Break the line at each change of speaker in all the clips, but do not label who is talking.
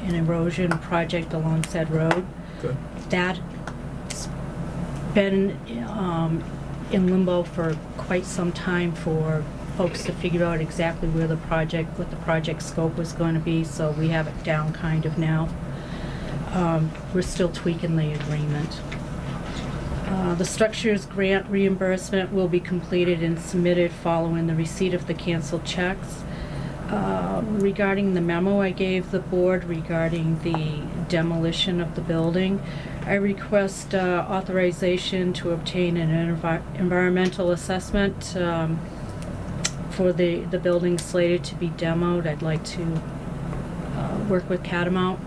an erosion project along said road.
Good.
That's been um, in limbo for quite some time for folks to figure out exactly where the project, what the project scope was going to be, so we have it down kind of now. Um, We're still tweaking the agreement. Uh, The structures grant reimbursement will be completed and submitted following the receipt of the canceled checks. Uh, Regarding the memo I gave the board regarding the demolition of the building, I request uh, authorization to obtain an envi- environmental assessment um, for the, the building slated to be demoed. I'd like to uh, work with Catamount.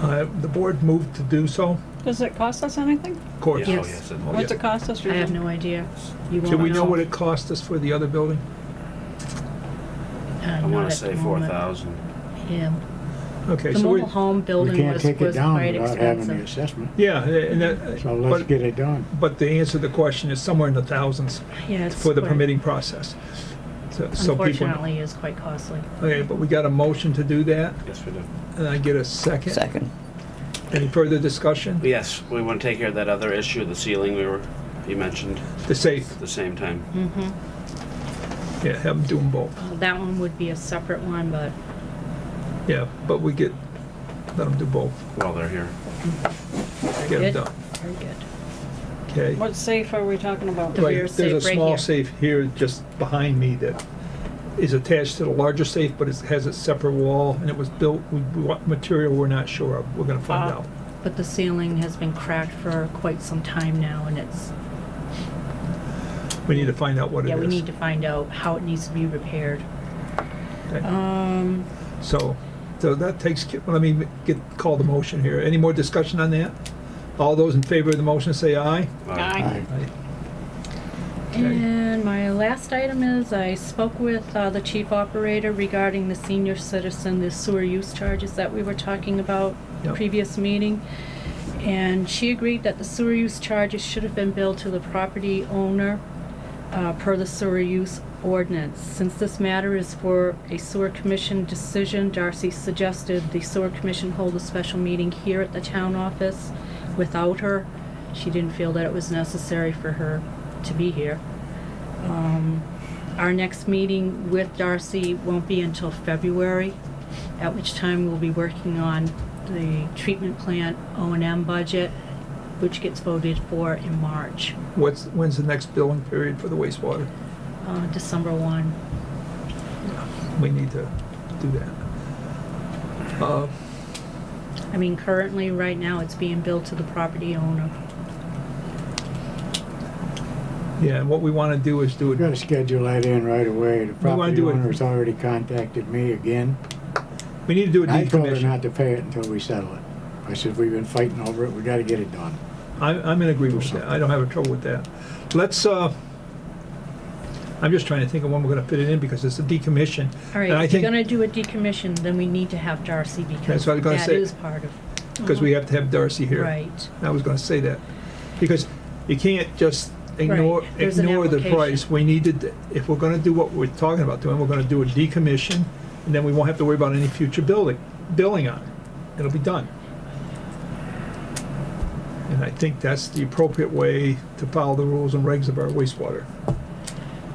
Uh, The board moved to do so,
Does it cost us anything?
of course.
Yeah.
Yeah, oh,
Yes.
yes. it-
What's it cost us?
I have no idea. You
Do
won't
we know what it cost us for the other building?
Uh,
I want to say four thousand.
Yeah.
Okay,
The
so we,
mobile home
We
building
can't
was,
take it
was
down
quite
without having the
expensive.
assessment,
yeah, uh, and that,
so let's
but,
get it done.
but the answer to the question is somewhere in the thousands
Yeah, it's
for the
quite-
permitting process. So- so people-
Unfortunately, is quite costly.
Okay, but we got a motion to do that,
Yes, we do.
and I get a second.
Second.
Any further discussion?
Yes, we want to take care of that other issue, the ceiling we were, you mentioned
The safe,
at the same time.
Mm-hmm.
yeah, have them do them both.
Well, that one would be a separate one, but
Yeah, but we get, let them do both,
while they're here.
get
Good.
them done,
very good.
okay?
What safe are we talking about?
The
Right,
rear safe
There's a
right
small
here.
safe here just behind me that is attached to the larger safe, but it has its separate wall, and it was built, with what material, we're not sure of, we're gonna find
Uh.
Ah.
out.
But the ceiling has been cracked for quite some time now, and it's,
We need to find out what it
yeah,
is.
we need to find out how it needs to be repaired.
Okay.
Um,
So, so that takes, ca- let me get, call the motion here. Any more discussion on that? All those in favor of the motion say aye.
Uh,
Aye.
Aye. Okay.
And my last item is, I spoke with uh, the chief operator regarding the senior citizen, the sewer use charges that we were talking about the
Yep.
previous meeting. And she agreed that the sewer use charges should have been billed to the property owner uh, per the sewer use ordinance. Since this matter is for a sewer commission decision, Darcy suggested the sewer commission hold a special meeting here at the town office without her. She didn't feel that it was necessary for her to be here. Um, Our next meeting with Darcy won't be until February, at which time we'll be working on the treatment plant O and M budget, which gets voted for in March,
What's, when's the next billing period for the wastewater?
uh, December 1.
We need to do that. Uh,
I mean, currently, right now, it's being billed to the property owner.
Yeah, and what we wanna do is do
We
it
gotta schedule that in right away. The
wanna
property
do it-
owner's already contacted me again.
We need to do a
And I told her
decommission.
not to pay it until we settle it. I said, we've been fighting over it, we gotta get it done.
I'm, I'm in agreement with that. I don't have a trouble with that. Let's, uh, I'm just trying to think of when we're gonna fit it in because it's a decommission.
All right,
And I
if you're
think-
going to do a decommission, then we need to have Darcy because
That's what I was gonna
that
say.
is part of,
Because we have to have Darcy here.
right.
I was gonna say that. Because you can't just ignore,
Right, there's an
ignore the
application.
price. We need to, d- if we're gonna do what we're talking about doing, we're gonna do a decommission and then we won't have to worry about any future building, billing on it. It'll be done. And I think that's the appropriate way to follow the rules and regs of our wastewater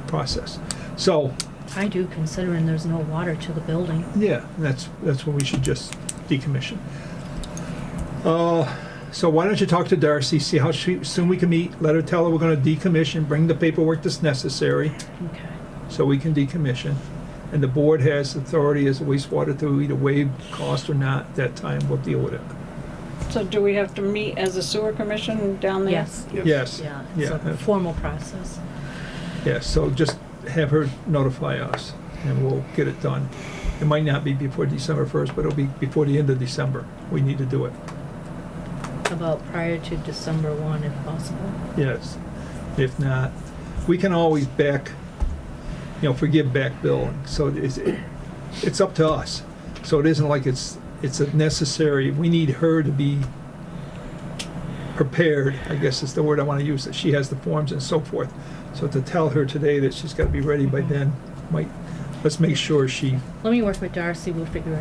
process. So,
I do, considering there's no water to the building.
yeah, that's, that's what we should just decommission. Uh, so why don't you talk to Darcy, see how she, soon we can meet, let her tell her we're gonna decommission, bring the paperwork that's necessary
Okay.
so we can decommission. And the board has authority as a wastewater to either waive cost or not, At that time we'll deal with it.
So do we have to meet as a sewer commission down there?
Yes,
Yes,
yeah, it's a
yeah,
formal process.
yeah, so just have her notify us and we'll get it done. It might not be before December first, but it'll be before the end of December. We need to do it.
About prior to December 1, if possible.
Yes, if not, we can always back, you know, forgive back billing, so it's, it's up to us. So it isn't like it's, it's a necessary, we need her to be prepared, I guess is the word I wanna use, that she has the forms and so forth. So to tell her today that she's gotta be ready by then, might, let's make sure she
Let me work with Darcy, we'll figure it